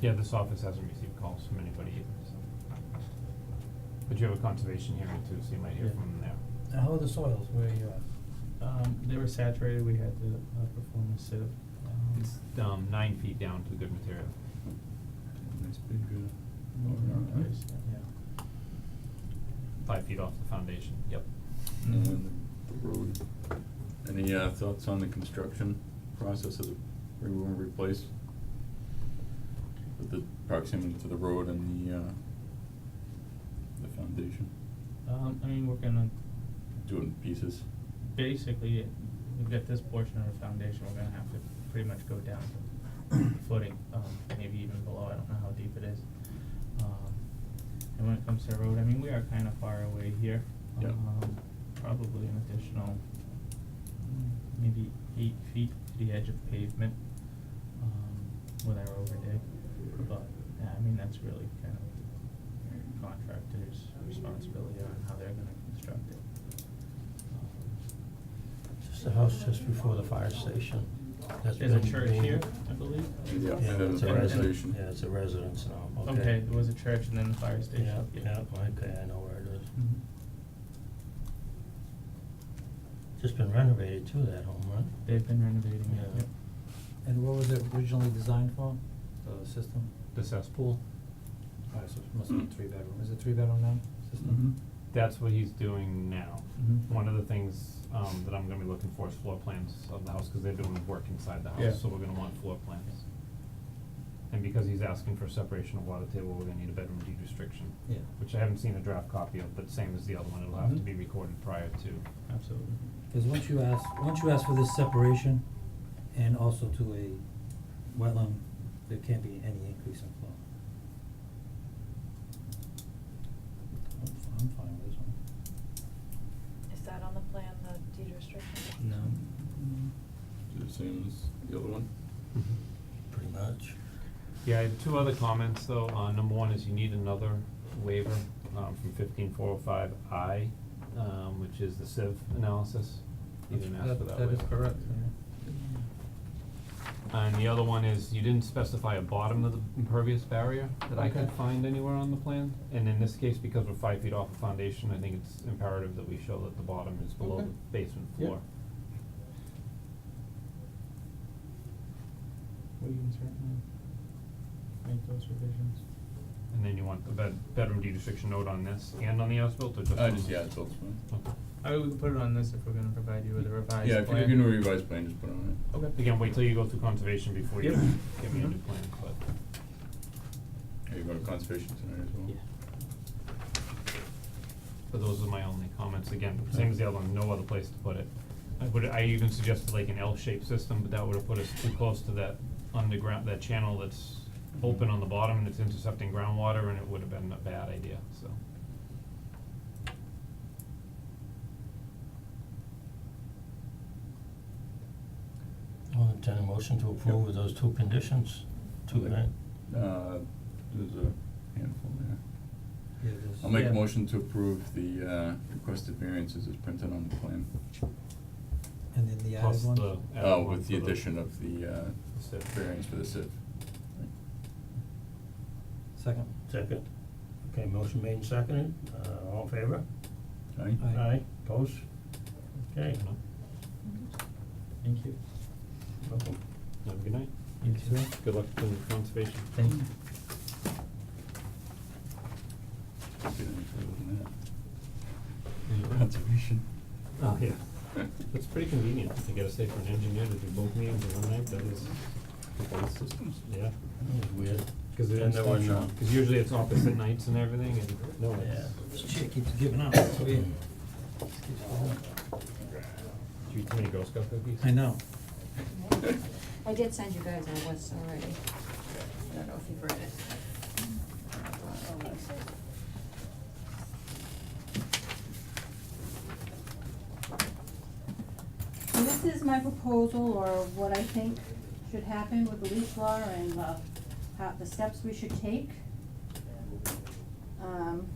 Yeah, this office hasn't received calls from anybody either, so. But you have a conservation hearing too, so you might hear Yeah. from them there. Now, how are the soils where you are? Um, they were saturated, we had to, uh, perform a sieve, um. It's, um, nine feet down to good material. Nice big, uh, over overhang, huh? place, Yeah. Five feet off the foundation. Yep. And the road. Any, uh, thoughts on the construction process of the, where we wanna replace? With the proximity to the road and the, uh, the foundation, Um, I mean, we're gonna, do it in pieces. basically, we've got this portion of the foundation, we're gonna have to pretty much go down to footing, um, maybe even below, I don't know how deep it is. Um, and when it comes to the road, I mean, we are kinda far away here. Yep. Um, probably an additional, mm, maybe eight feet to the edge of pavement, um, with our overday. But, yeah, I mean, that's really kind of contractor's responsibility on how they're gonna construct it. Um, Just the house just before the fire station. That's Um, There's a been church being- here, I believe. Yeah, Yeah, the it's a fire residence, station. yeah, it's a residence now, okay. Okay, there was a church and then the fire station. Yeah, yeah, okay, I know where it is. Mhm. Just been renovated too, that home, right? They've been renovating it, Yeah. yep. And what was it originally designed for, the system? The cesspool, Alright, so it must be three bedroom, is it three bedroom now, Mm-hmm. system? that's what he's doing now. Mhm. One of the things, um, that I'm gonna be looking for is floor plans of the house, cause they're doing work inside the Yeah. house, so we're gonna want floor plans. And because he's asking for separation of water table, we're gonna need a bedroom deed restriction. Yeah. Which I haven't seen a draft copy of, but same as the other one, it'll have to Mhm. be recorded prior to. Absolutely. Cause once you ask, once you ask for this separation and also to a wetland, there can't be any increase in flow. I'm f- I'm fine with this one. Is that on the plan, the deed restriction? No. Do the same as the other one? Pretty much. Mm-hmm. Yeah, I have two other comments though. Uh, number one is you need another waiver, um, from fifteen four oh five I, um, which is the sieve analysis. You didn't ask for that waiver. That is correct, And the other one is you didn't specify a bottom of the impervious barrier that I could Okay. find anywhere on the plan. And in this case, because we're five feet off the foundation, I think it's imperative that we show that the bottom is below Okay. the basement Yeah. floor. We can certainly make those revisions. And then you want the bed, bedroom deed restriction note on this and on the as-built or just Uh, on just, this? yeah, it's all fine. Okay. I would we can put it on this if we're gonna provide you with a revised plan. Yeah, if you're gonna revise plan, just put on it. Okay. Again, wait till you go through conservation before you Yep. give me a new Mhm. plan, but. Are you going to conservation tonight as well? Yeah. But those are my only comments, again, same as the other one, no other place to put it. I would, I even suggested like an L-shaped system, but that would've put us too close to that underground, that channel that's open on the bottom and it's intercepting groundwater and it would've been a bad idea, so. I'll entertain a motion to approve with those two conditions, two, Like- right? Uh, there's a handful there. Yeah, there's- I'll make Yeah. a motion to approve the uh requested variances as printed on the plan. and then the added Plus one? the added Uh, one with the for addition of the uh the sieve. variance for the sieve. Second. Second. Okay, motion made and seconded, uh, all in favor? Aye? Aye. Opposed? Okay, You know? Mm-hmm. Thank you. welcome. Have a good night. You Yes, sir. Good luck with conservation. Thank you. Can't get any further than Yeah. that. Conservation. Oh, yeah. It's pretty convenient to get a say for an engineer to do both meetings in one night, that is, Both systems? yeah. That was weird. Cause it And there were no- uh, cause usually it's opposite nights and everything and no, it's. Yeah. This chick keeps giving up, it's weird. Just keeps going. Did you eat too many Girl Scout cookies? I know. I did send you guys my list already. I don't know if you've read it. And this is my proposal or what I think should happen with the leash law and the, how, the steps we should take. Um.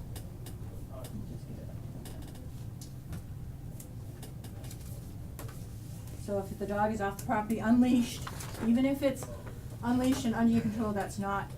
So if the dog is off the property unleashed, even if it's unleashed and under your control, that's not